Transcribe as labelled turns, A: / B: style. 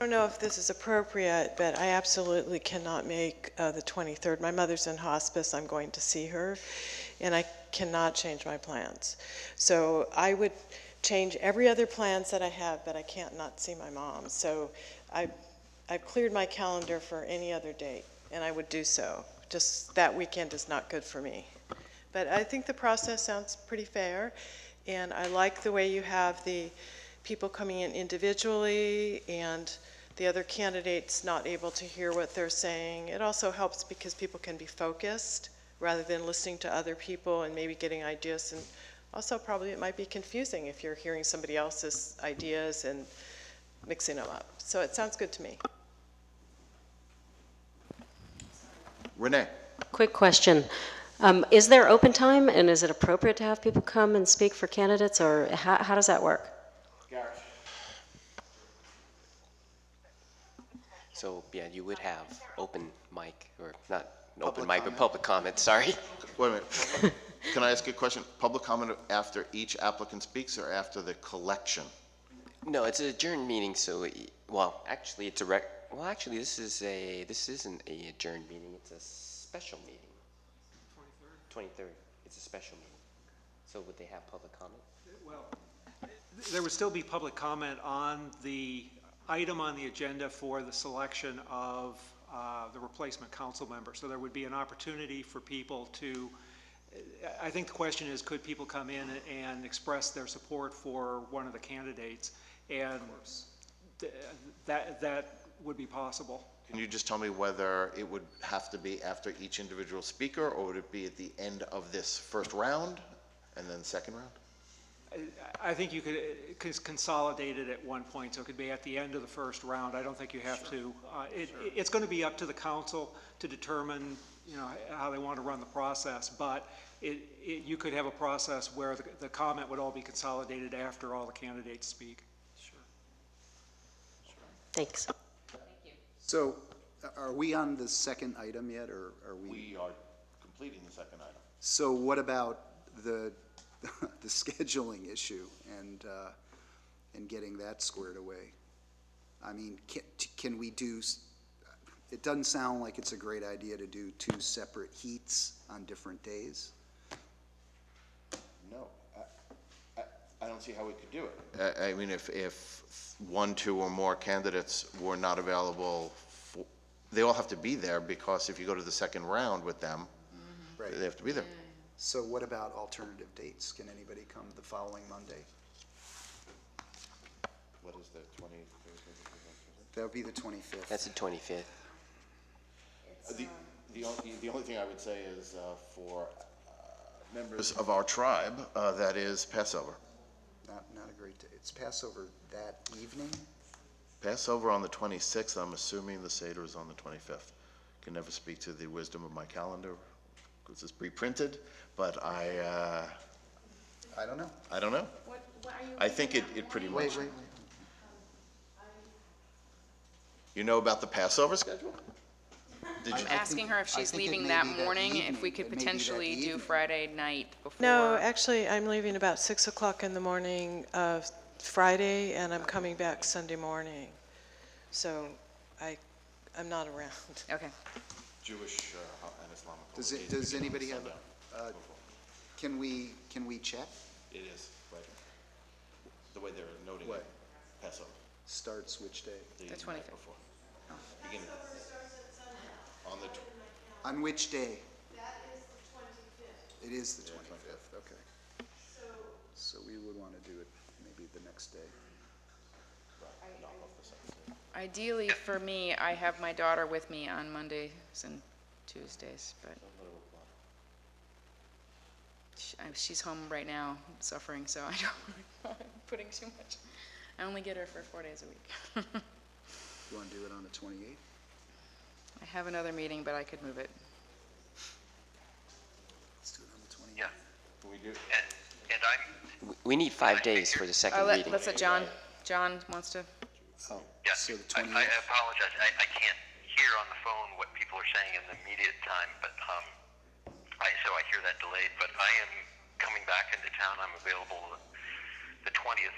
A: don't know if this is appropriate, but I absolutely cannot make uh, the 23rd. My mother's in hospice, I'm going to see her, and I cannot change my plans. So I would change every other plans that I have, but I can't not see my mom. So I, I've cleared my calendar for any other date, and I would do so. Just that weekend is not good for me. But I think the process sounds pretty fair, and I like the way you have the people coming in individually and the other candidates not able to hear what they're saying. It also helps because people can be focused rather than listening to other people and maybe getting ideas. And also, probably it might be confusing if you're hearing somebody else's ideas and mixing them up. So it sounds good to me.
B: Renee?
C: Quick question. Um, Is there open time, and is it appropriate to have people come and speak for candidates, or how how does that work?
D: So, yeah, you would have open mic, or not an open mic, but public comment, sorry.
B: Wait a minute. Can I ask you a question? Public comment after each applicant speaks or after the collection?
D: No, it's an adjourned meeting, so, it- well, actually, it's a rec, well, actually, this is a, this isn't a adjourned meeting, it's a special meeting. Twenty-third? Twenty-third, it's a special meeting. So would they have public comment?
E: Well, there would still be public comment on the item on the agenda for the selection of uh, the replacement council member. So there would be an opportunity for people to, I think the question is, could people come in and express their support for one of the candidates? And th- that, that would be possible.
B: Can you just tell me whether it would have to be after each individual speaker, or would it be at the end of this first round and then second round?
E: I think you could uh, cons- consolidate it at one point, so it could be at the end of the first round. I don't think you have to. uh, It, it's going to be up to the council to determine, you know, how they want to run the process, but it, it, you could have a process where the, the comment would all be consolidated after all the candidates speak.
C: Thanks.
F: So a- are we on the second item yet, or are we?
B: are completing the second item.
F: So what about the, the scheduling issue and, uh, and getting that squared away? I mean, can, can we do, s- it doesn't sound like it's a great idea to do two separate heats on different days.
B: No, I- I, I don't see how we could do it. I, I mean, if, if one, two, or more candidates were not available, for- they all have to be there, because if you go to the second round with them, they have to be there.
F: So what about alternative dates? Can anybody come the following Monday?
B: What is the twenty?
F: That would be the twenty-fifth.
D: That's the twenty-fifth.
B: The, the only, the only thing I would say is uh, for uh, members of our tribe, uh, that is Passover.
F: Not, not a great day. It's Passover that evening?
B: Passover on the 26th, I'm assuming the Seder is on the 25th. Can never speak to the wisdom of my calendar, because it's pre-printed, but I, uh,
F: I don't know.
B: I don't know. I think it, it pretty much,
F: Wait, wait, wait.
B: you know about the Passover schedule? Did you,
G: I'm asking her if
F: I
G: she's
F: think it
G: leaving
F: may
G: that
F: be that
G: morning, if we
F: evening.
G: could
F: It may be that
G: potentially do
F: evening.
G: Friday night before.
A: No, uh, actually, I'm leaving about 6 o'clock in the morning of Friday, and I'm coming back Sunday morning. So I, I'm not around.
G: Okay.
B: Jewish uh, and Islamic
F: Does
B: holidays
F: it, does
B: begin on
F: anybody have,
B: Sunday.
F: uh, can we, can we check?
B: It is, right. The way they're noting it, Passover.
F: Starts which day?
G: The 25th.
B: Beginning. On the, tw-
F: On which day? That is the twenty-fifth. It is the twenty-fifth, okay. So we would want to do it maybe the next day.
G: Ideally, for me, I have my daughter with me on Mondays and Tuesdays, but She- I- she's home right now suffering, so I don't, I'm putting too much. I only get her for four days a week.
F: You want to do it on the twenty-eighth?
G: I have another meeting, but I could move it.
F: Let's do it on the twenty-eighth.
H: Yeah. And, and I'm,
D: We need five days for the second
G: Oh, let-
D: meeting.
G: let's let John, John wants to,
F: Oh,
H: yeah,
F: so the
H: I, I
F: twenty-eighth,
H: apologize. I, I can't hear on the phone what people are saying in the immediate time, but, um, I, so I hear that delayed, but I am coming back into town. I'm available the twentieth